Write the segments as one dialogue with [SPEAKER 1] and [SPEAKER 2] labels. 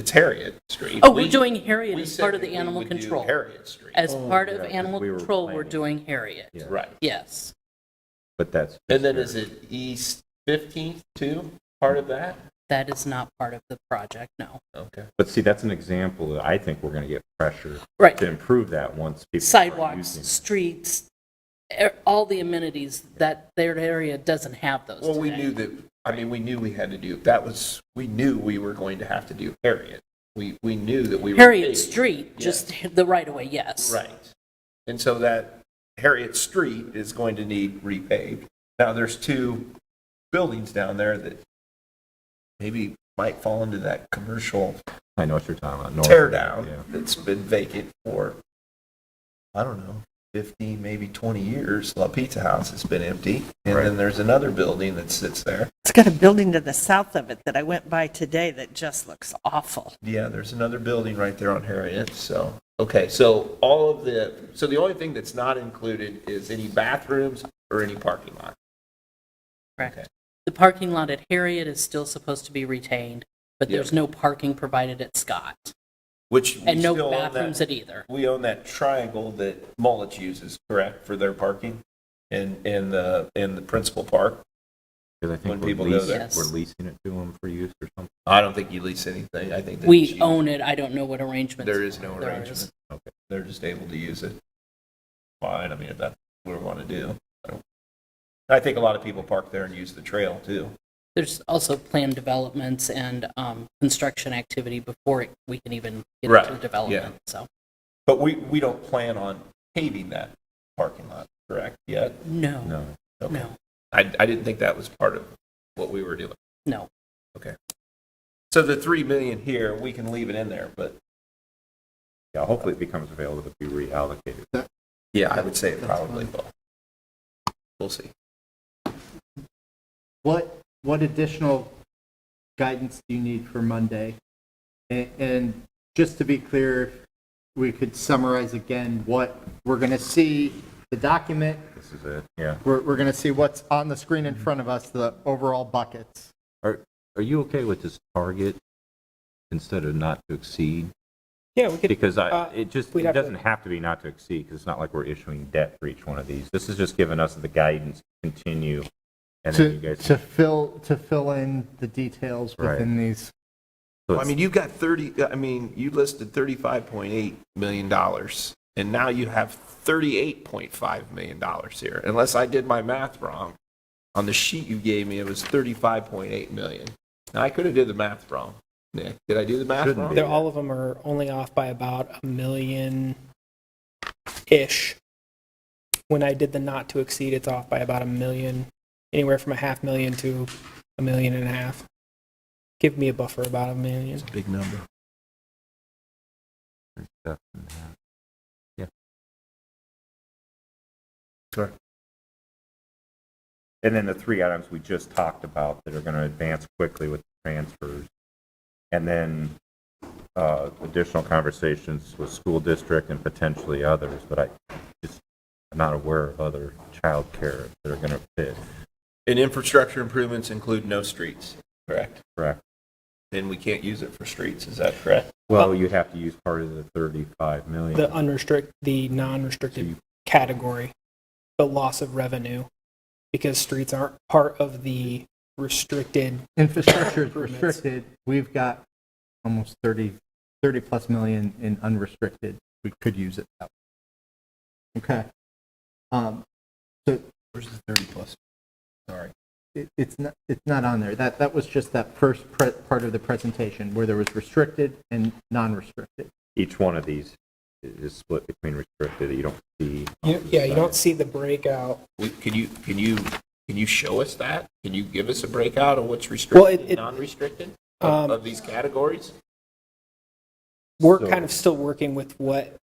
[SPEAKER 1] It's Harriet Street.
[SPEAKER 2] Oh, we're
[SPEAKER 1] We-
[SPEAKER 2] doing Harriet
[SPEAKER 1] we
[SPEAKER 2] as
[SPEAKER 1] said
[SPEAKER 2] part of
[SPEAKER 1] that
[SPEAKER 2] the
[SPEAKER 1] we
[SPEAKER 2] animal
[SPEAKER 1] would do
[SPEAKER 2] control.
[SPEAKER 1] Harriet Street,
[SPEAKER 2] As
[SPEAKER 3] Oh,
[SPEAKER 2] part of
[SPEAKER 4] yeah, 'cause
[SPEAKER 2] animal
[SPEAKER 4] we were
[SPEAKER 2] control, we're
[SPEAKER 4] planning.
[SPEAKER 2] doing Harriet.
[SPEAKER 4] Yeah.
[SPEAKER 1] right.
[SPEAKER 2] Yes.
[SPEAKER 4] But that's.
[SPEAKER 1] And then is it East 15th too, part of that?
[SPEAKER 2] That is not part of the project, no.
[SPEAKER 1] Okay.
[SPEAKER 4] But see, that's an example that I think we're going to get pressure
[SPEAKER 2] Right.
[SPEAKER 4] to improve that once people. start
[SPEAKER 2] Sidewalks,
[SPEAKER 4] using it.
[SPEAKER 2] streets, e- all the amenities, that their area doesn't have those
[SPEAKER 1] Well, we
[SPEAKER 2] today.
[SPEAKER 1] knew that, I mean, we knew we had to do, that was, we knew we were going to have to do Harriet. We, we knew that we were.
[SPEAKER 2] Harriet
[SPEAKER 1] big.
[SPEAKER 2] Street, just the right of way, yes.
[SPEAKER 1] Right. And so that Harriet Street is going to need repaved. Now, there's two buildings down there that maybe might fall into that commercial
[SPEAKER 4] I know what you're talking about. north
[SPEAKER 1] tear
[SPEAKER 4] of that,
[SPEAKER 1] down
[SPEAKER 4] Oh, yeah.
[SPEAKER 1] that's been vacant for, I don't know, 15, maybe 20 years. La Pizza House has been empty. And then there's another building that sits there.
[SPEAKER 3] It's got a building to the south of it that I went by today that just looks awful.
[SPEAKER 1] Yeah, there's another building right there on Harriet, so, okay, so all of the, so the only thing that's not included is any bathrooms or any parking lot. Okay.
[SPEAKER 2] Correct. The parking lot at Harriet is still supposed to be retained, but
[SPEAKER 1] Yep.
[SPEAKER 2] there's no parking provided at Scott.
[SPEAKER 1] Which we
[SPEAKER 2] And no
[SPEAKER 1] still own that-
[SPEAKER 2] bathrooms at either.
[SPEAKER 1] We own that triangle that Mullet uses, correct, for their parking in, in the, in the principal park?
[SPEAKER 4] Because I
[SPEAKER 1] When
[SPEAKER 4] think we're
[SPEAKER 1] people go
[SPEAKER 4] leasing,
[SPEAKER 1] there.
[SPEAKER 4] we're leasing it to them for use or something.
[SPEAKER 1] I don't think you lease anything, I think that.
[SPEAKER 2] We
[SPEAKER 1] you-
[SPEAKER 2] own it, I don't know what arrangements.
[SPEAKER 1] There is no
[SPEAKER 2] there
[SPEAKER 1] arrangement. Okay. They're just able to use it. Fine, I mean, if that's what we want to do. I don't- I think a lot of people park there and use the trail too.
[SPEAKER 2] There's also planned developments and um, construction activity before it- we can even get
[SPEAKER 1] Right,
[SPEAKER 2] into development, so.
[SPEAKER 1] But we, we don't plan on paving that parking lot, correct, yet?
[SPEAKER 2] No,
[SPEAKER 4] No.
[SPEAKER 1] Okay.
[SPEAKER 2] no,
[SPEAKER 1] I, I didn't think that was part of what we were doing.
[SPEAKER 2] no.
[SPEAKER 1] So the 3 million here, we can leave it in there, but.
[SPEAKER 4] Yeah, hopefully it becomes available to be reallocated.
[SPEAKER 1] Yeah, I would say it probably will. We'll see.
[SPEAKER 5] What, what additional guidance do you need for Monday? A- And just to be clear, if we could summarize again what we're going to see, the document,
[SPEAKER 4] This is it, yeah.
[SPEAKER 5] we're, we're going to see what's on the screen in front of us, the overall buckets.
[SPEAKER 4] Are, are you okay with this target instead of not to exceed?
[SPEAKER 6] Yeah, we could,
[SPEAKER 4] Because I,
[SPEAKER 6] uh,
[SPEAKER 4] it just,
[SPEAKER 6] we'd
[SPEAKER 4] it
[SPEAKER 6] have to-
[SPEAKER 4] doesn't have to be not to exceed, because it's not like we're issuing debt for each one of these. This is just giving us the guidance to continue, and then you
[SPEAKER 5] To,
[SPEAKER 4] guys.
[SPEAKER 5] to fill, to fill in the details
[SPEAKER 4] Right.
[SPEAKER 5] within these.
[SPEAKER 4] so
[SPEAKER 1] I
[SPEAKER 4] it's-
[SPEAKER 1] mean, you've got 30, I mean, you listed 35.8 million dollars, and now you have 38.5 million dollars here. Unless I did my math wrong, on the sheet you gave me, it was 35.8 million. Now, I could have did the math wrong, Nick. Did I do the math
[SPEAKER 4] Shouldn't
[SPEAKER 1] wrong?
[SPEAKER 4] be.
[SPEAKER 6] they're, all of them are only off by about a million-ish. When I did the not to exceed, it's off by about a million, anywhere from a half million to a million and a half. Give me a buffer about a million.
[SPEAKER 1] Big number.
[SPEAKER 4] stuff and that. Yeah.
[SPEAKER 1] Sure.
[SPEAKER 4] And then the three items we just talked about that are going to advance quickly with transfers. And then uh, additional conversations with school district and potentially others, but I just, I'm not aware of other childcare that are going to fit,
[SPEAKER 1] And infrastructure improvements include no streets, correct?
[SPEAKER 4] correct?
[SPEAKER 1] Then we can't use it for streets, is that correct?
[SPEAKER 4] Well, you have to use part of the 35 million.
[SPEAKER 6] The unrestrict, the
[SPEAKER 4] So
[SPEAKER 6] non-restricted
[SPEAKER 4] you-
[SPEAKER 6] category, the loss of revenue, because streets aren't part of the restricted
[SPEAKER 5] Infrastructure is
[SPEAKER 6] Improvements.
[SPEAKER 5] restricted. We've got almost 30, 30 plus million in unrestricted. We could use it that way. Okay. Um, So
[SPEAKER 1] Where's the 30 plus? Sorry.
[SPEAKER 5] it, it's not, it's not on there. That, that was just that first pre- part of the presentation where there was restricted and non-restricted.
[SPEAKER 4] Each one of these is split between restricted, that you don't see. on
[SPEAKER 6] You,
[SPEAKER 4] the
[SPEAKER 6] yeah, you
[SPEAKER 4] side.
[SPEAKER 6] don't see the breakout.
[SPEAKER 1] Can you, can you, can you show us that? Can you give us a breakout of what's
[SPEAKER 6] Well, it-
[SPEAKER 1] restricted and
[SPEAKER 6] it-
[SPEAKER 1] non-restricted of
[SPEAKER 6] Um,
[SPEAKER 1] of these categories?
[SPEAKER 6] We're
[SPEAKER 4] So-
[SPEAKER 6] kind of still working with what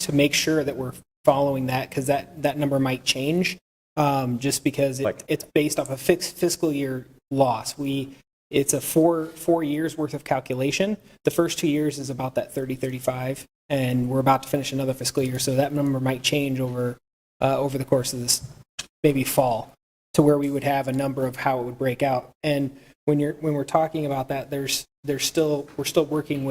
[SPEAKER 6] to make sure that we're following that because that, that number might change um, just because it,
[SPEAKER 4] Like-
[SPEAKER 6] it's based off a fixed fiscal year loss. We it's a four four years worth of calculation. The first two years is about that 30 35 and we're about to finish another fiscal year so that number might change over uh, over the course of this maybe fall to where we would have a number of how it would break out. And when you're when we're talking about that there's there's still we're still working with